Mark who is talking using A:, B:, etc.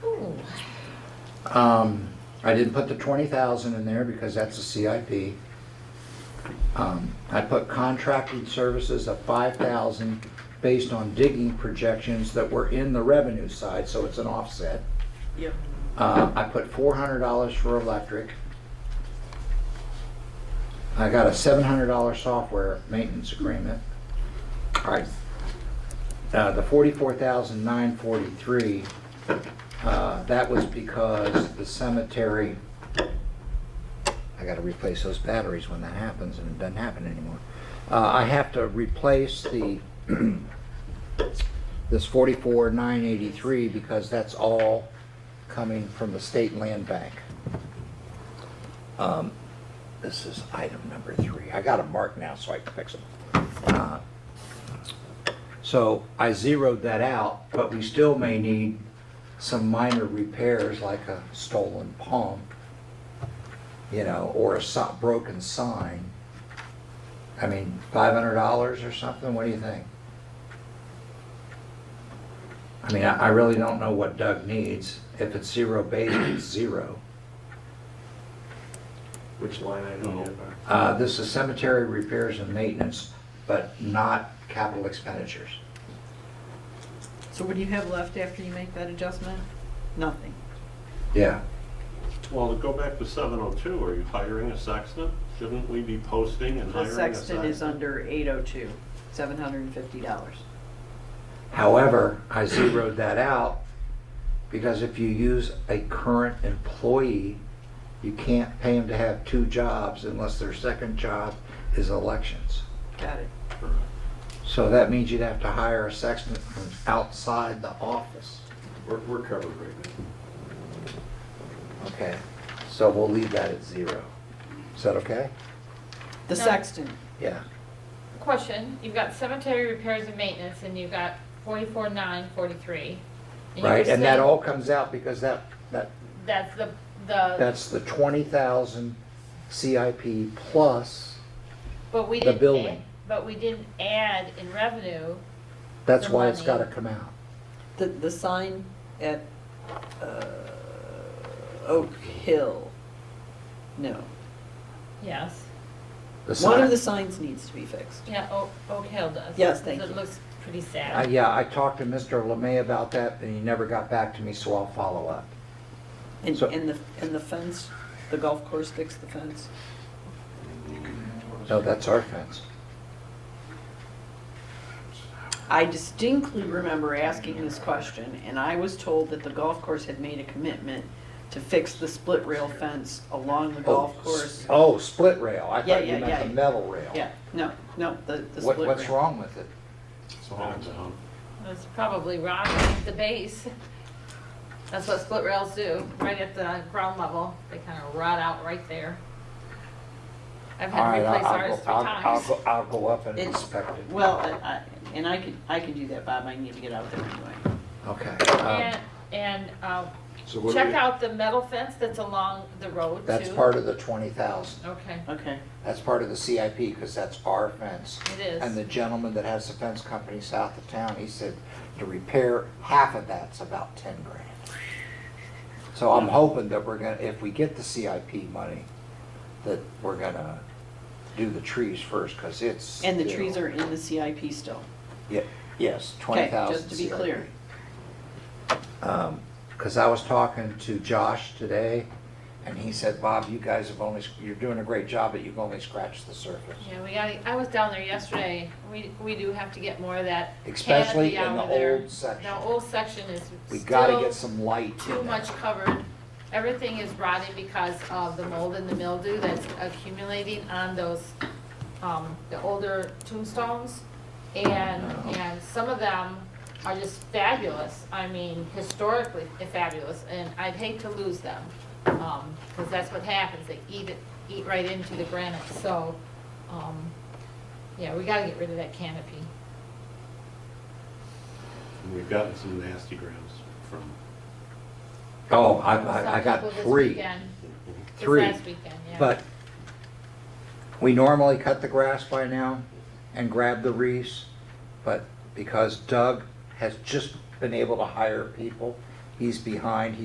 A: Um, I didn't put the twenty thousand in there because that's a CIP. Um, I put contracted services of five thousand based on digging projections that were in the revenue side, so it's an offset.
B: Yep.
A: Uh, I put four hundred dollars for electric. I got a seven hundred dollar software maintenance agreement. All right. Uh, the forty-four thousand nine forty-three, uh, that was because the cemetery, I gotta replace those batteries when that happens, and it doesn't happen anymore. Uh, I have to replace the, this forty-four nine eighty-three, because that's all coming from the state land bank. Um, This is item number three. I got them marked now, so I can fix them. Uh, So I zeroed that out, but we still may need some minor repairs like a stolen pump, you know, or a so- broken sign. I mean, five hundred dollars or something, what do you think? I mean, I, I really don't know what Doug needs. If it's zero base, it's zero.
C: Which line item? you
D: No.
C: have?
A: Uh, this is cemetery repairs and maintenance, but not capital expenditures.
B: So what do you have left after you make that adjustment? Nothing.
A: Yeah.
D: Well, to go back to seven oh two, are you hiring a sexton? Shouldn't we be posting and
B: The
D: hiring a sexton?
B: sexton is under eight oh two, seven hundred and fifty dollars.
A: However, I zeroed that out because if you use a current employee, you can't pay them to have two jobs unless their second job is elections.
B: Got it.
D: Correct.
A: So that means you'd have to hire a sexton from outside the office.
C: We're, we're covered right now.
A: Okay, so we'll leave that at zero. Is that okay?
B: The
E: No.
B: sexton,
A: Yeah.
E: Question, you've got cemetery repairs and maintenance, and you've got forty-four nine forty-three.
A: Right, and that all comes out because that, that,
E: That's the, the,
A: that's the twenty thousand CIP plus,
E: but we
A: the
E: didn't. add-
A: building.
E: But we didn't add in revenue,
A: that's
E: The
A: why it's
E: money.
A: gotta come out.
B: the, the sign at, uh, Oak Hill. No,
E: yes.
A: The
B: one
A: sign-
B: of the signs needs to be fixed.
E: Yeah, Oak, Oak Hill does.
B: Yes, thank you.
E: It looks pretty
A: Uh,
E: sad.
A: yeah, I talked to Mr. Lemay about that, and he never got back to me, so I'll follow up.
B: And,
A: So-
B: and the, and the fence, the golf course fixed the fence.
A: No, that's our fence.
B: I distinctly remember asking this question, and I was told that the golf course had made a commitment to fix the split rail fence along the golf
A: Oh,
B: course.
A: Oh, split rail, I
B: Yeah,
A: thought you
B: yeah,
A: meant
B: yeah.
A: the metal rail.
B: Yeah, no, no, the, the
A: What,
B: split rail.
A: what's wrong with it?
D: It's all down.
E: That's probably rotting the base. That's what split rails do, right at the ground level. They kind of rot out right there. I've
A: All
E: had
A: right,
E: to
A: I'll-
E: replace
A: I'll go-
E: ours three
A: I'll- I'll
E: times.
A: go, I'll go up and
B: It's-
A: inspect it.
B: Well, I, I- and I could, I could do that, Bob, I need to get out there anyway.
A: Okay.
E: And,
A: um,
E: and, um,
C: So what do
E: Check
C: we,
E: out the metal fence that's along the road too.
A: That's part of the twenty thousand.
E: Okay,
B: Okay,
A: That's part of the CIP, because that's our fence.
E: it is.
A: And the gentleman that has the fence company south of town, he said to repair half of that's about ten grand. So I'm hoping that we're gonna, if we get the CIP money, that we're gonna do the trees first, cause it's.
B: and the trees are in the CIP still.
A: Yeah, yes, twenty thousand.
B: just to be clear.
A: Um, Cause I was talking to Josh today, and he said, Bob, you guys have only, you're doing a great job, but you've only scratched the surface.
E: Yeah, we got, I was down there yesterday. We, we do have to get more of that
A: Especially
E: canopy
A: in the
E: out of there.
A: old section.
E: The old section is
A: We gotta
E: still
A: get some light in
E: Too
A: there.
E: much covered. Everything is rotting because of the mold and the mildew that's accumulating on those, um, the older tombstones. And,
A: No.
E: and some of them are just fabulous. I mean, historically fabulous, and I'd hate to lose them. Um, cause that's what happens. They eat it, eat right into the granite, so, um, yeah, we gotta get rid of that canopy.
D: And We've gotten some nasty grams from,
A: Oh, I, I, I
E: Some
A: got
E: people this
A: three,
E: weekend- this
A: three.
E: last weekend, yeah.
A: But we normally cut the grass by now and grab the wreaths, but because Doug has just been able to hire people, he's behind,